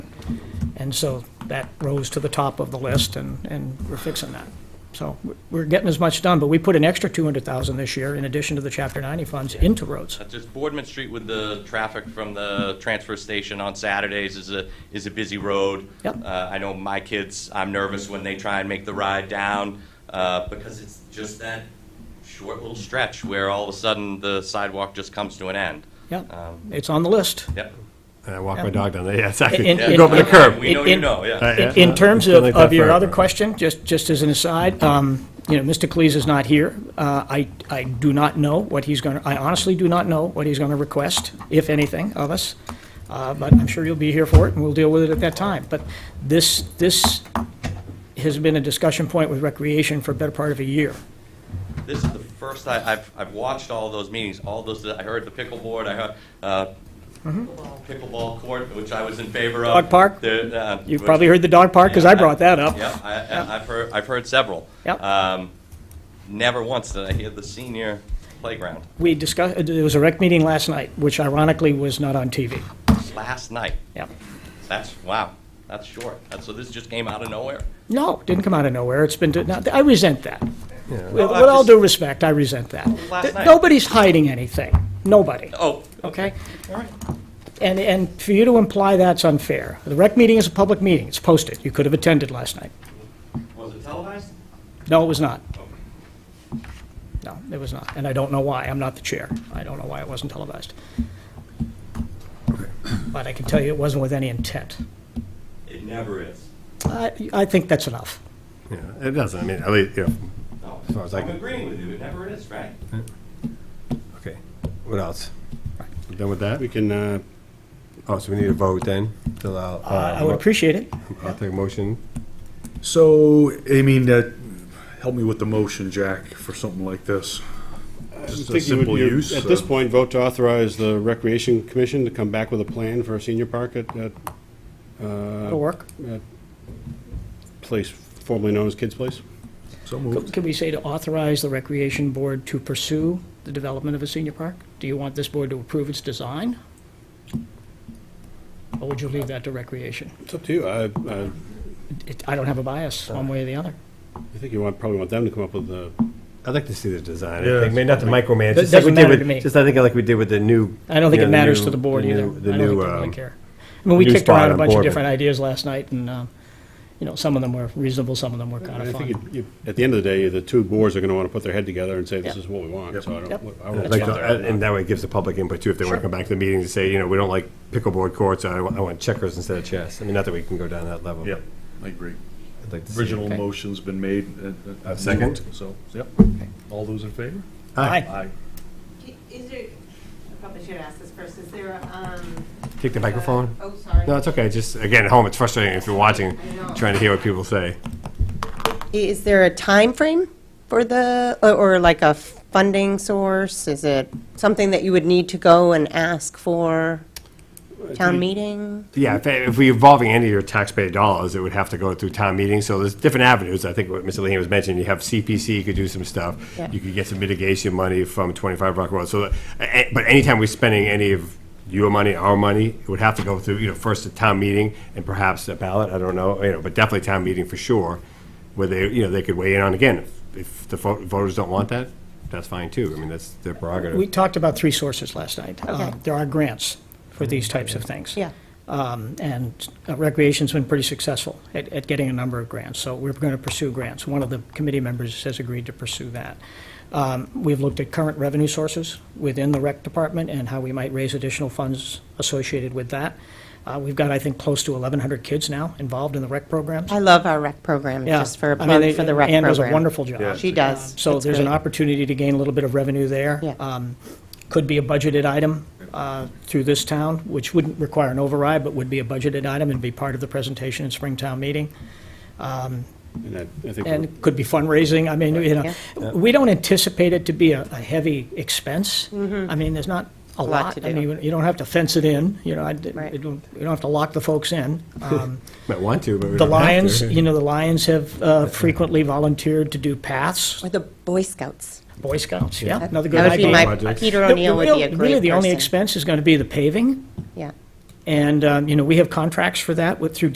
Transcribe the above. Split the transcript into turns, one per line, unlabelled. And so that rose to the top of the list, and, and we're fixing that. So we're getting as much done, but we put an extra 200,000 this year in addition to the Chapter 90 funds into roads.
Uh, Just Boardman Street with the traffic from the transfer station on Saturdays is a, is a busy road.
Yep.
Uh, I know my kids, I'm nervous when they try and make the ride down, uh, because it's just that short little stretch where all of a sudden the sidewalk just comes to an end.
Yep,
Um,
it's on the list.
Yep.
And I walk
Um,
my dog down there. Yeah, exactly.
And- and-
You go up to the curb.
We know you know, yeah.
Right,
In-
yeah.
In terms
It's been
of,
Uh, like
of
that
your
forever.
other question, just, just as an aside, um, you know, Mr. Cleese is not here. Uh, I, I do not know what he's going to, I honestly do not know what he's going to request, if anything, of us. Uh, But I'm sure you'll be here for it, and we'll deal with it at that time. But this, this has been a discussion point with Recreation for a better part of a year.
This is the first, I, I've, I've watched all those meetings, all those, I heard the pickleboard, I heard, uh, pickleball court, which I was in favor of.
Dog Mm-hmm. park?
The, uh,
You've
which-
probably heard the dog park, because I
Yeah,
brought that up.
Yeah, I- I, I've heard, I've heard several.
Yep.
Um, never once did I hear the senior playground
We discussed, there was a rec meeting last night, which ironically was not on TV.
last night.
Yeah.
That's, wow, that's short. That's, so this just came out of nowhere?
No, didn't come out of nowhere. It's been, now, I resent that. With
Well,
with
I
all
just-
due respect, I resent that.
Last
Th-
night.
Nobody's hiding anything. Nobody.
Oh,
Okay?
all right.
And, and for you to imply that's unfair. The rec meeting is a public meeting. It's posted. You could have attended last night.
Was it televised?
No, it was not. No, it was not. And I don't know why. I'm not the chair. I don't know why it wasn't televised. But I can tell you it wasn't with any intent.
It never is.
I, I think that's enough.
Yeah, it doesn't. I mean, at least, yeah.
No,
As far as I
I'm
can-
agreeing with you. It never is, right?
Okay. What else?
Right.
We're Done with that?
We can, uh,
Oh, so we need a vote then. So I'll,
Uh, I I would appreciate it.
I'll take a motion.
so, I mean, uh, help me with the motion, Jack, for something like this. Just a simple use.
At this
uh,
point, vote to authorize the Recreation Commission to come back with a plan for a senior park at, at
It'll work.
place formerly known as Kids Place.
So moved.
Can we say to authorize the Recreation Board to pursue the development of a senior park? Do you want this board to approve its design? Or would you leave that to Recreation?
It's up to you. I, I,
It- I don't have a bias, one way or the other.
I think you want, probably want them to come up with the,
I'd like to see the design.
Yeah.
I think, maybe not the micromanage.
That
just like we
doesn't
did
matter
with-
to me.
Just I think like we did with the new.
I don't think it
you know, the
matters
new-
to the board
the
either. I
new-
don't
The
think they
new,
really
um,
care. I mean, we
new
kicked around
spot
a
on
bunch of
Bourbon.
different ideas last night, and, um, you know, some of them were reasonable, some of them were kind
I
of
think,
fun.
you- you- at the end of the day, the two boards are gonna wanna put their head together and say, this
Yeah.
is what we want, so I
Yep.
don't, I
I'd
don't.
like
bother
to-
about
And that way it gives the public input too, if they want to
Sure.
come back to the meeting to say, you know, we don't like pickleboard courts, I want I want checkers instead of chess. I mean, not that we can go down that level.
Yep, I agree.
I'd like to see it.
Original
Okay.
motion's been made. uh, uh,
Second.
moved, So, yep. All those in favor?
Aye.
Aye.
Is there, I probably should ask this first, is there, a, um.
Take the microphone.
uh, Oh, sorry.
No, it's okay. Just again, at home, it's frustrating if you're watching, trying to hear what people say.
Is there a time frame for the, or- or like a funding source? Is it something that you would need to go and ask for town meeting?
Yeah, if, if we're involving any of your taxpayer dollars, it would have to go through town meetings. So there's different avenues. I think what Mr. Leahy was mentioning, you have CPC, you could do some stuff.
Yeah.
You could get some mitigation money from 25 Rock Road. So, uh, eh, but anytime we're spending any of your money, our money, it would have to go through, you know, first a town meeting and perhaps a ballot. I don't know, you know, but definitely town meeting for sure, where they, you know, they could weigh in on again. If- If the vo- voters don't want that, that's fine too. I mean, that's their prerogative.
We talked about three sources last night. Uh,
Okay.
There are grants for these types of things.
Yeah.
Um, And uh, Recreation's been pretty successful at, at getting a number of grants, so we're going to pursue grants. One of the committee members has agreed to pursue that. Um, We've looked at current revenue sources within the rec department and how we might raise additional funds associated with that. Uh, We've got, I think, close to 1,100 kids now involved in the rec programs.
I love our rec program,
Yeah.
just for a
I mean,
plug
they-
for the rec program.
Ann does a wonderful job. Um,
She does.
So
It's
there's an
great.
opportunity to gain a little bit of revenue there.
Yeah.
Um, Could be a budgeted item uh, through this town, which wouldn't require an override, but would be a budgeted item and be part of the presentation in Springtown meeting.
it. And I- I think we're-
And could be fundraising, I mean, you know, we don't anticipate it to be a a heavy expense. I mean, there's not a
Mm-hmm. lot
lot.
to
I
do.
mean, you don't have to fence it in, you know, I d-
Right.
you don't you don't have to lock the folks in. Um,
Might want to, but we
The
don't have to.
Lions, you know, the Lions have uh, frequently volunteered to do paths,
Or the Boy Scouts.
Boy Scouts, yeah,
That
another
would
good
be
idea.
my,
Projects.
Peter
The- the
O'Neill would
real-
be a great person.
Really, the only expense is going to be the paving,
Yeah.
and, um, you know, we have contracts for that with, through